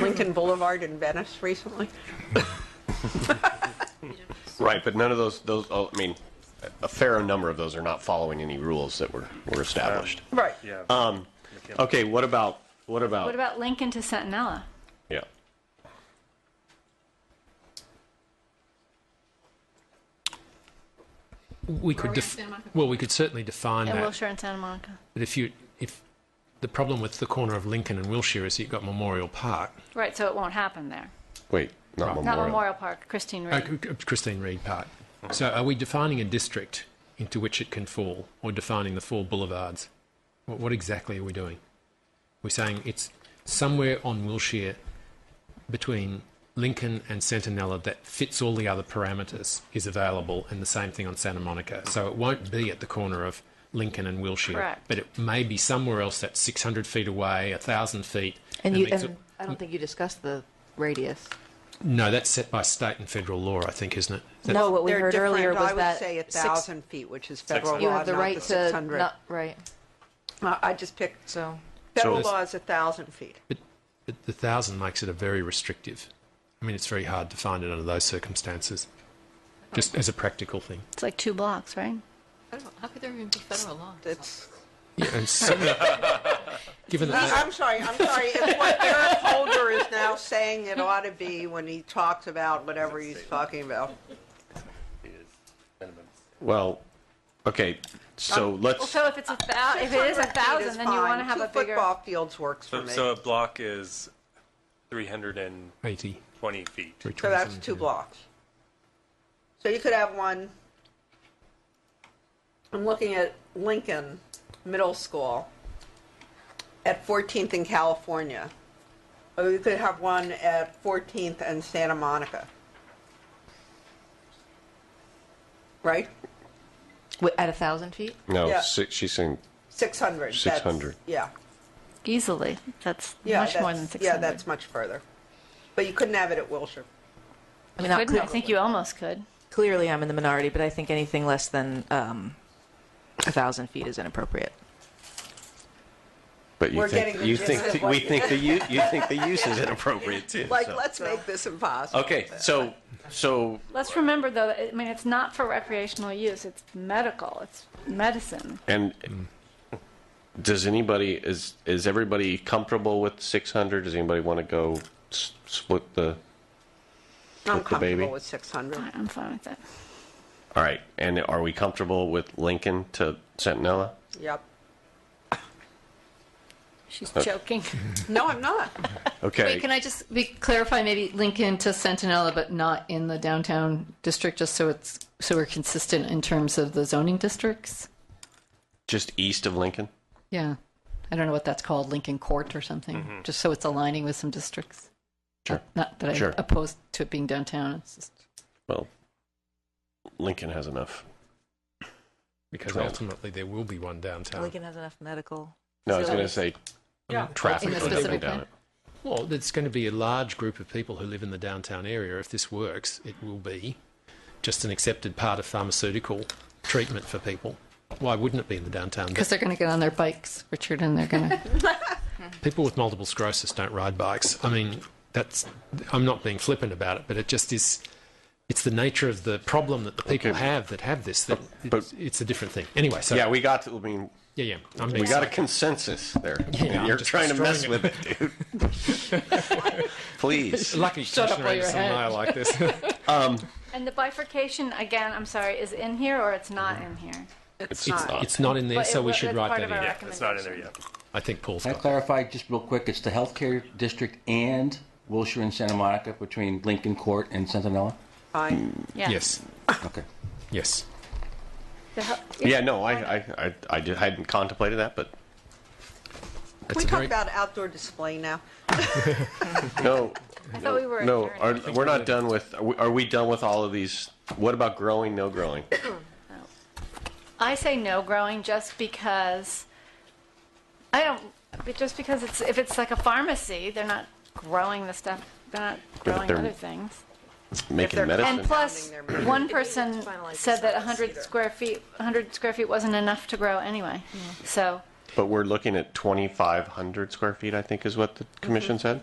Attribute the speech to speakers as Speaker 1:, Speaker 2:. Speaker 1: Lincoln Boulevard in Venice recently.
Speaker 2: Right, but none of those, those, oh, I mean, a fair number of those are not following any rules that were, were established.
Speaker 1: Right.
Speaker 3: Yeah.
Speaker 2: Um, okay, what about, what about?
Speaker 4: What about Lincoln to Centinela?
Speaker 2: Yeah.
Speaker 5: We could, def- well, we could certainly define
Speaker 4: And
Speaker 5: that,
Speaker 4: Wilshire and Santa Monica.
Speaker 5: but if you, if, the problem with the corner of Lincoln and Wilshire is you've got Memorial Park,
Speaker 4: Right, so it won't happen there.
Speaker 2: Wait, not
Speaker 4: Not
Speaker 2: Memorial.
Speaker 4: Memorial Park, Christine
Speaker 5: uh,
Speaker 4: Reed.
Speaker 5: C- C- Christine Reed Park. So are we defining a district into which it can fall, or defining the four boulevards? What, what exactly are we doing? We're saying it's somewhere on Wilshire between Lincoln and Centinela that fits all the other parameters is available, and the same thing on Santa Monica. So it won't be at the corner of Lincoln and Wilshire,
Speaker 4: Correct.
Speaker 5: but it may be somewhere else that's 600 feet away, 1,000 feet.
Speaker 6: And you,
Speaker 5: makes
Speaker 6: and
Speaker 5: it-
Speaker 6: I don't think you discussed the radius.
Speaker 5: no, that's set by state and federal law, I think, isn't it? That's-
Speaker 6: No, what we
Speaker 1: They're
Speaker 6: heard
Speaker 1: different.
Speaker 6: earlier was
Speaker 1: I would
Speaker 6: that
Speaker 1: say a
Speaker 6: six-
Speaker 1: thousand feet, which is federal
Speaker 6: You
Speaker 1: law,
Speaker 6: have the
Speaker 1: not
Speaker 6: right
Speaker 1: the six
Speaker 6: to,
Speaker 1: hundred.
Speaker 6: not, right,
Speaker 1: I just picked,
Speaker 6: so.
Speaker 1: federal
Speaker 5: So-
Speaker 1: law is a thousand feet.
Speaker 5: But, but the 1,000 makes it a very restrictive. I mean, it's very hard to find it under those circumstances, just as a practical thing.
Speaker 4: It's like two blocks, right?
Speaker 7: Federal- How could there even be federal law?
Speaker 1: It's,
Speaker 5: Yeah, and so, given that.
Speaker 1: I'm sorry, I'm sorry. It's what Eric Holder is now saying it ought to be when he talks about whatever he's talking about.
Speaker 2: Well, okay, so
Speaker 4: Well,
Speaker 2: let's,
Speaker 4: so if it's a thou, if it is a
Speaker 1: 600 feet
Speaker 4: thousand, then you
Speaker 1: fine.
Speaker 4: want to have
Speaker 1: Two
Speaker 4: a bigger.
Speaker 1: football fields works for
Speaker 3: So,
Speaker 1: me.
Speaker 3: so
Speaker 1: So
Speaker 3: a block is 320
Speaker 5: 80.
Speaker 3: feet.
Speaker 1: that's two blocks. So you could have one, I'm looking at Lincoln Middle School at 14th and California. Or you could have one at 14th and Santa Monica. Right?
Speaker 6: Wi- At a thousand feet?
Speaker 2: no,
Speaker 1: yeah.
Speaker 2: si- she's saying,
Speaker 1: 600. that's-
Speaker 2: 600.
Speaker 1: Yeah.
Speaker 4: Easily, that's
Speaker 1: Yeah,
Speaker 4: much more
Speaker 1: that's-
Speaker 4: than six
Speaker 1: Yeah,
Speaker 4: hundred.
Speaker 1: that's much further. But you couldn't have it at Wilshire.
Speaker 6: I mean, not
Speaker 4: I
Speaker 6: clear-
Speaker 4: think you almost could.
Speaker 6: clearly I'm in the minority, but I think anything less than, um, a thousand feet is inappropriate.
Speaker 2: but you
Speaker 1: We're getting
Speaker 2: think,
Speaker 1: the
Speaker 2: you
Speaker 1: gist
Speaker 2: think,
Speaker 1: of
Speaker 2: the-
Speaker 1: what
Speaker 2: we
Speaker 1: you-
Speaker 2: think the, u- you think the use is inappropriate too.
Speaker 1: Like,
Speaker 2: so.
Speaker 1: let's make this impossible.
Speaker 2: Okay, so, so,
Speaker 4: Let's remember though. That, I mean, it's not for recreational use. It's medical. It's medicine.
Speaker 2: and does anybody, is, is everybody comfortable with 600? Does anybody want to go s- split the?
Speaker 1: I'm
Speaker 2: With the baby?
Speaker 1: comfortable with 600.
Speaker 4: I'm fine with that.
Speaker 2: All right, and are we comfortable with Lincoln to Centinela?
Speaker 1: Yep.
Speaker 4: She's joking.
Speaker 1: No, I'm not.
Speaker 2: Okay.
Speaker 7: Wait, can I just be, clarify maybe Lincoln to Centinela, but not in the downtown district, just so it's, so we're consistent in terms of the zoning districts?
Speaker 2: just east of Lincoln?
Speaker 7: Yeah. I don't know what that's called, Lincoln Court or something, just so it's aligning with some districts.
Speaker 2: Mm-hmm. Sure.
Speaker 7: Not that
Speaker 2: Sure.
Speaker 7: I'm opposed to it being downtown. It's just,
Speaker 2: Well, Lincoln has enough.
Speaker 5: Because
Speaker 2: Twelve.
Speaker 5: ultimately there will be one downtown.
Speaker 6: Lincoln has enough medical.
Speaker 2: No, I was going to
Speaker 6: facilities.
Speaker 2: say
Speaker 5: Yeah.
Speaker 2: traffic
Speaker 7: In the
Speaker 2: going up and
Speaker 7: specific
Speaker 2: down
Speaker 7: one?
Speaker 2: it.
Speaker 5: Well, there's going to be a large group of people who live in the downtown area. If this works, it will be just an accepted part of pharmaceutical treatment for people. Why wouldn't it be in the downtown?
Speaker 7: because they're going to get on their bikes, Richard, and they're going to.
Speaker 5: People with multiple sclerosis don't ride bikes. I mean, that's I'm not being flippant about it, but it just is. It's the nature of the problem that the people
Speaker 2: Okay.
Speaker 5: have that have this. That
Speaker 2: But-
Speaker 5: it's, it's a different thing. Anyway, so
Speaker 2: Yeah, we got. To, I mean,
Speaker 5: yeah, yeah. I'm
Speaker 2: we got a consensus there.
Speaker 5: Yeah,
Speaker 2: You're
Speaker 5: just
Speaker 2: trying to mess
Speaker 5: destroying
Speaker 2: with it, dude. Please.
Speaker 5: lucky
Speaker 7: Shut up
Speaker 5: Commissioner
Speaker 7: while you're
Speaker 5: Anderson and I
Speaker 7: ahead.
Speaker 5: like this.
Speaker 4: and the bifurcation again. I'm sorry, is in here or it's not in here?
Speaker 1: It's
Speaker 5: it's,
Speaker 1: not.
Speaker 5: it's not in there,
Speaker 4: But
Speaker 5: so
Speaker 4: it-
Speaker 5: we should
Speaker 4: that's
Speaker 5: write
Speaker 4: part
Speaker 5: that
Speaker 4: of
Speaker 5: in.
Speaker 4: our
Speaker 3: Yeah, it's not in there yet.
Speaker 5: I think Paul's
Speaker 8: Can I
Speaker 5: got that.
Speaker 8: clarify just real quick? It's the healthcare district and Wilshire and Santa Monica between Lincoln Court and Centinela?
Speaker 1: Fine.
Speaker 4: Yeah.
Speaker 5: Yes,
Speaker 8: Okay.
Speaker 5: yes.
Speaker 4: The hel-
Speaker 2: Yeah, no, I, I, I, I did- hadn't contemplated that, but
Speaker 5: It's
Speaker 1: Can we
Speaker 5: a
Speaker 1: talk
Speaker 5: very-
Speaker 1: about outdoor display now?
Speaker 2: no.
Speaker 4: I thought we were.
Speaker 2: No,
Speaker 4: adjourned.
Speaker 2: are, we're not done with. Are we, are we done with all of these? What about growing? No growing.
Speaker 4: I say no growing just because I don't. but Just because it's if it's like a pharmacy, they're not growing the stuff. They're not
Speaker 2: but
Speaker 4: growing
Speaker 2: they're-
Speaker 4: other things.
Speaker 2: Making
Speaker 1: they're-
Speaker 2: medicine.
Speaker 4: And plus,
Speaker 1: Pounding their-
Speaker 4: one person said that 100 square feet, 100 square feet wasn't enough to grow anyway. So.
Speaker 2: but we're looking at 2,500 square feet. I think is what the commission said.